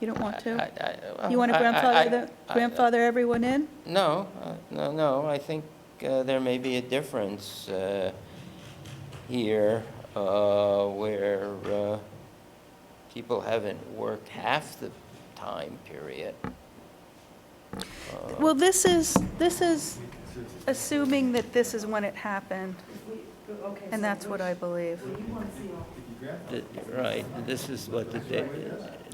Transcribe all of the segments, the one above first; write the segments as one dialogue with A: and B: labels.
A: You don't want to?
B: I- I-
A: You want to
B: I- I- I-
A: grandfather, the
B: I- uh,
A: grandfather everyone in?
B: No, uh, no, no, I think uh, there may be a difference uh, here uh, where uh, people haven't worked half the time period.
A: Well, this is, this is assuming that this is when it happened, and that's what I believe.
B: Uh, Th- Right, this is what the da-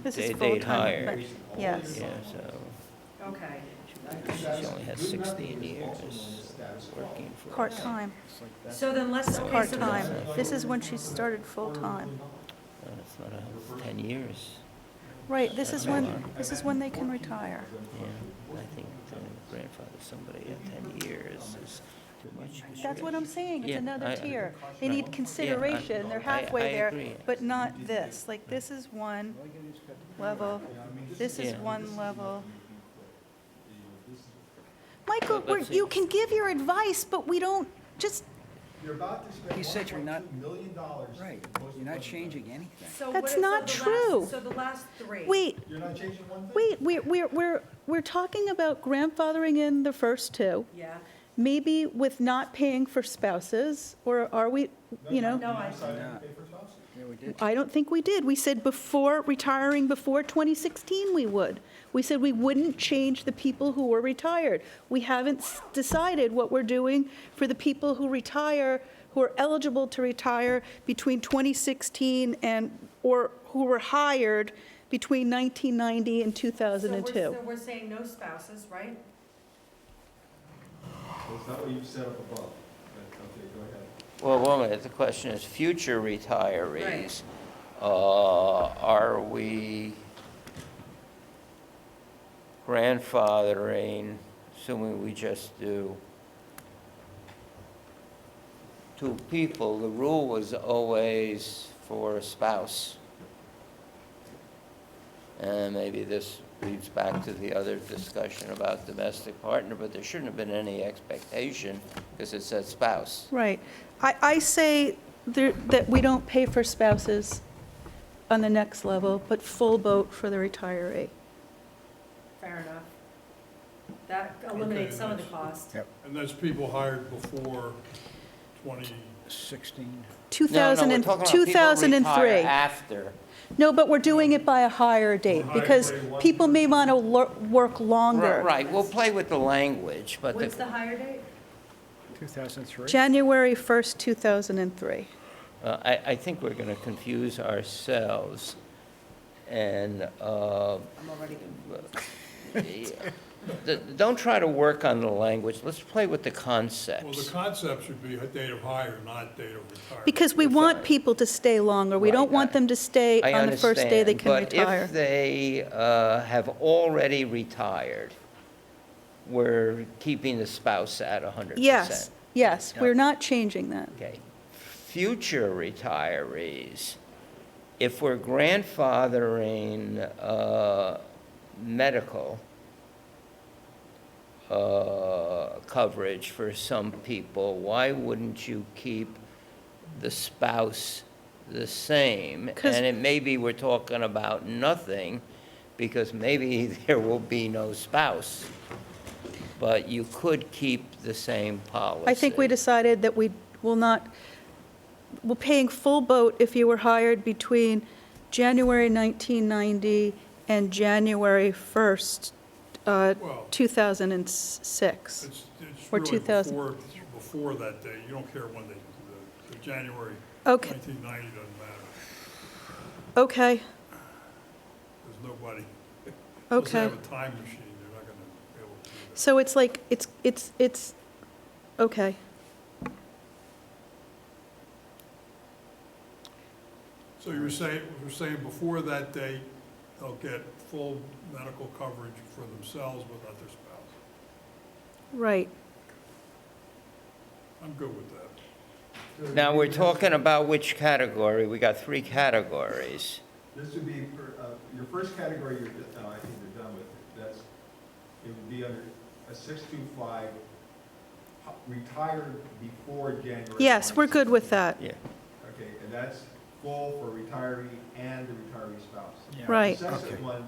A: This
B: day
A: is
B: they
A: full-time.
B: hired.
A: but- Yes.
B: Yeah, so
C: Okay.
B: she only has 16 years working for us.
A: Part-time,
C: So then let's, okay, so
A: part-time.
C: then,
A: This is when she started full-time.
B: Uh, It's not a- 10 years.
A: Right, this is when, this is when they can retire.
B: Yeah, I think the grandfather, somebody at 10 years is too much.
A: That's what I'm saying, it's
B: Yeah, I-
A: another
B: I-
A: tier. They
B: right.
A: need
B: Yeah, I-
A: consideration, they're
B: I-
A: halfway
B: I
A: there,
B: agree.
A: but not this. Like, this is one level, this is
B: Yeah.
A: one level. Michael,
B: Let-
A: we're-
B: let's see.
A: you can give your advice, but we don't, just,
D: You're about to
E: He said
D: spend
E: you're not-
D: $1.2 million dollars.
E: Right, you're not changing anything.
C: so what
A: That's
C: is, so the
A: not
C: last,
A: true.
C: so the last three.
A: wait,
D: You're not changing one thing?
A: wait, we're, we're, we're, we're talking about grandfathering in the first two,
C: Yeah,
A: maybe with not paying for spouses, or are we, you know?
C: no, I,
D: Decided to pay for spouses.
E: Yeah, we did.
A: I don't think we did. We said before, retiring before 2016, we would. We said we wouldn't change the people who were retired. We haven't s- decided what we're doing for the people who retire, who are eligible to retire between 2016 and, or who were hired between 1990 and
C: so we're,
A: 2002.
C: so we're saying no spouses, right?
D: Well, it's not what you set up above, but, okay, go ahead.
B: Well, one minute, the question is, future retirees, uh, are we grandfathering, assuming we just do two people, the rule was always for a spouse. And maybe this leads back to the other discussion about domestic partner, but there shouldn't have been any expectation, because it said spouse.
A: Right. I, I say there- that we don't pay for spouses on the next level, but full boat for the retiree.
C: Fair enough. That eliminates some of the cost.
E: Yep.
F: And that's people hired before 20,
E: 16.
B: No, no,
A: 2000
B: we're
A: and-
B: talking about people
A: 2003.
B: retire after.
A: No, but we're doing it by a higher date,
D: Higher
A: because
D: rate, one-
A: people may want to work
B: Right,
A: longer.
B: Right, we'll play with the language, but
C: What's the
B: the,
C: higher date?
E: 2003?
A: January 1st, 2003.
B: uh, I, I think we're going to confuse ourselves. And, uh,
C: I'm already,
B: the- don't try to work on the language, let's play with the
F: well, the
B: concepts.
F: concept should be date of hire, not date of retirement.
A: Because we want people to stay longer. We don't
B: Right,
A: want
B: I-
A: them to stay
B: I
A: on the first day they
B: understand,
A: can
B: But
A: retire.
B: if they uh, have already retired, we're keeping the spouse at 100%.
A: Yes, yes,
B: Yeah.
A: we're not changing that.
B: Okay. Future retirees, if we're grandfathering uh, medical uh, coverage for some people, why wouldn't you keep the spouse the same?
A: 'Cause-
B: And it may be we're talking about nothing, because maybe there will be no spouse. But you could keep the same policy.
A: I think we decided that we will not, we're paying full boat if you were hired between January 1990 and January 1st, uh,
F: Well-
A: 2006.
F: It's, it's
A: Or
F: really
A: 2000.
F: before, before that date, you don't care when they, the- the January
A: Okay.
F: 1990 doesn't matter.
A: Okay,
F: There's nobody, unless they
A: okay.
F: have a time machine, they're not going to be able to do that.
A: So it's like, it's, it's, it's, okay.
F: So you were saying, you were saying before that date, they'll get full medical coverage for themselves without their spouse.
A: Right.
F: I'm good with that.
B: Now, we're talking about which category? We got three categories.
D: This would be, for, uh, your first category, you're, no, I think you're done with it. That's, it would be under a six-two-five, retired before January.
A: Yes, we're good with
D: 2016.
A: that.
B: Yeah.
D: Okay, and that's full for retiree and the retiree spouse.
A: Right.
D: The second one